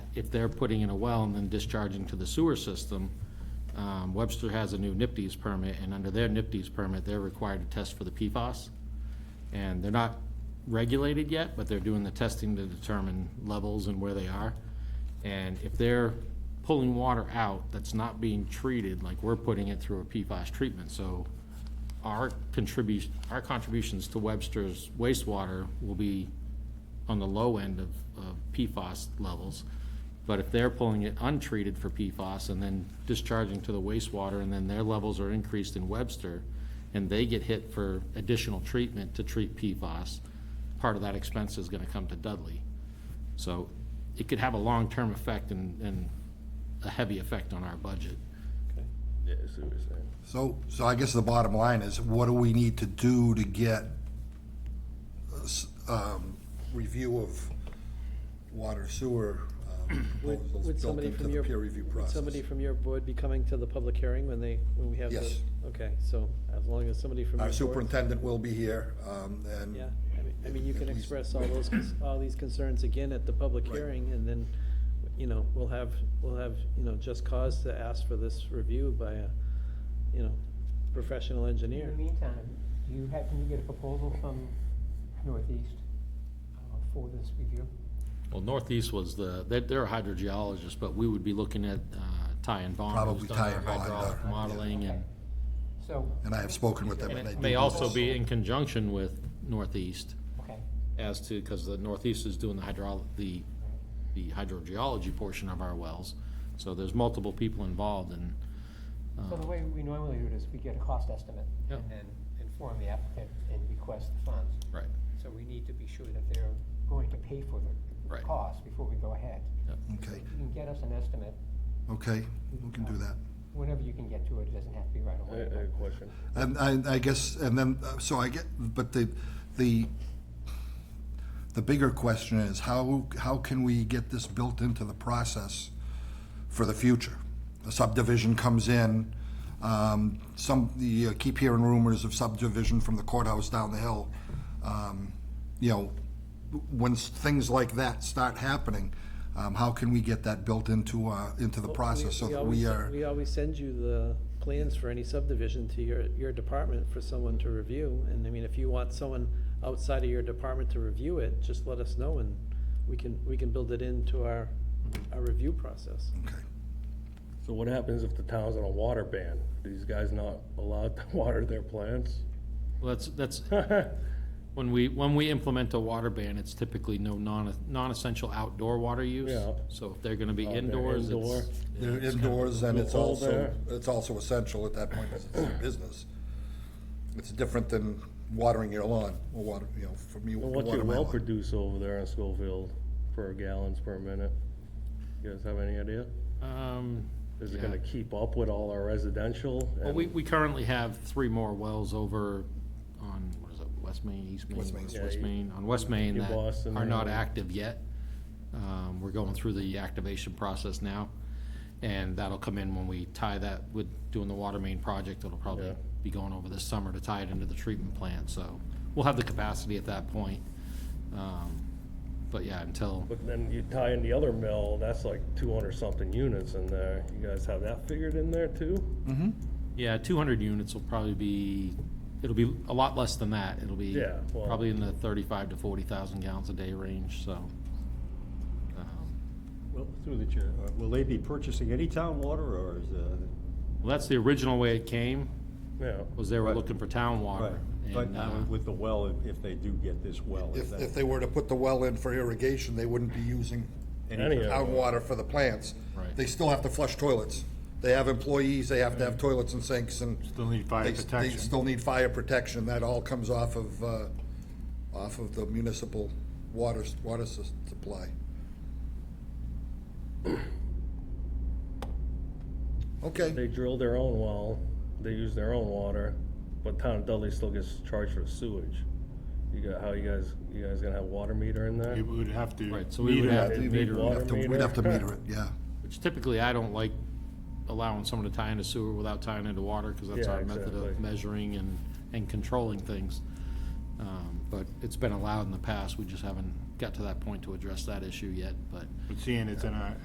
if they're putting in a well and then discharging to the sewer system, um, Webster has a new NIPDES permit, and under their NIPDES permit, they're required to test for the PFAS. And they're not regulated yet, but they're doing the testing to determine levels and where they are. And if they're pulling water out that's not being treated, like we're putting it through a PFAS treatment, so our contribution, our contributions to Webster's wastewater will be on the low end of, of PFAS levels. But if they're pulling it untreated for PFAS and then discharging to the wastewater, and then their levels are increased in Webster, and they get hit for additional treatment to treat PFAS, part of that expense is gonna come to Dudley. So it could have a long-term effect and, and a heavy effect on our budget. Yeah, I see what you're saying. So, so I guess the bottom line is, what do we need to do to get a s- um, review of water sewer um, Would, proposals would built somebody into from the your, peer review would process? somebody from your board be coming to the public hearing when they, when we have the? Yes. Okay, so as long as somebody from your Our board. superintendent will be here, um, and Yeah, I mean, I mean, you At can least- express all those, cons- all these concerns again at the public Right. hearing, and then, you know, we'll have, we'll have, you know, just cause to ask for this review by a, you know, professional In engineer. the meantime, do you happen to get a proposal from Northeast uh, for this review? Well, Northeast was the, they're, they're a hydrogeologist, but we would be looking at, uh, Ty and Bond. who's Probably done Ty our and Bond, hydraulic yeah. Modeling and. So, and I have spoken with them. And they it do may do also this. be in conjunction with Northeast okay, as to, because the Northeast is doing the hydraulic, the, the hydrogeology portion of our wells. So there's multiple people involved and, so the uh, way we normally do it is we get a cost estimate Yeah. and then inform the applicant and request the funds. right. So we need to be sure that they're going to pay for the Right. cost before we go ahead. So Okay, If you can get us an estimate, okay, we can do that. whenever you can get to it, it doesn't have to be right I, away. I have a question. And I, I guess, and then, uh, so I get, but the, the, the bigger question is, how, how can we get this built into the process for the future? A subdivision comes in, um, some, you keep hearing rumors of subdivision from the courthouse down the hill. Um, You know, when s- things like that start happening, um, how can we get that built into, uh, into the process so that we always- are? We always send you the plans for any subdivision to your, your department for someone to review, and I mean, if you want someone outside of your department to review it, just let us know, and we can, we can build it into our, our review process. Okay. So what happens if the town's on a water ban? These guys not allowed to water their plants? Well, that's, that's, when we, when we implement a water ban, it's typically no non, non-essential outdoor water use. Yeah. So if they're gonna be Oh, they're indoors, it's. indoor. yeah, They're it's kind of- indoors, and it's Well, also, there- it's also essential at that point, because it's their business. It's different than watering your lawn, or water, you know, for me, Well, What's your watering my well lawn. produce over there in Schofield per gallons per minute? You guys have any idea? Um, Is it yeah. gonna keep up with all our residential? Well, and- we, we currently have three more wells over on, what is it, West Main, East Main? West Main. West- Yeah, West you- Main, on West Main you that Boston are not area. active yet. Um, we're going through the activation process now, and that'll come in when we tie that with doing the water main project. It'll probably Yeah. be going over this summer to tie it into the treatment plant, so we'll have the capacity at that point. Um, But yeah, until, But then you tie in the other mill, that's like two hundred something units in there. You guys have that figured in there too? yeah, two hundred units will probably be, it'll be a lot less than that. It'll be Yeah, well- probably in the thirty-five to forty thousand gallons a day range, so. um, Well, through the chair, uh, will they be purchasing any town water, or is, uh, Well, that's the original way it came, Yeah. was they were Right. looking for town right, water. but and, now uh, with the well, if- if they do get this well, is If, if that they were to put the well in for irrigation, they wouldn't be using Any of town it. water for the plants. Right. They still have to flush toilets. They have employees, they have to have toilets and sinks, and. Mm-hmm. Still need fire they s- They protection. still need fire protection. That all comes off of, uh, off of the municipal water, s- water s- supply. Okay. They drill their own well, they use their own water, but town of Dudley still gets charged for sewage. You got, how you guys, you guys gonna have water meter in there? It would have to. Right, so we would meter have it. to It'd be meter it. We'd water have to, we'd have to meter. meter it, yeah. Which typically, I don't like allowing someone to tie into sewer without tying into water, because that's Yeah, our method of exactly. measuring and, and controlling things. Um, But it's been allowed in the past, we just haven't got to that point to address that issue yet, but. But seeing it's in a,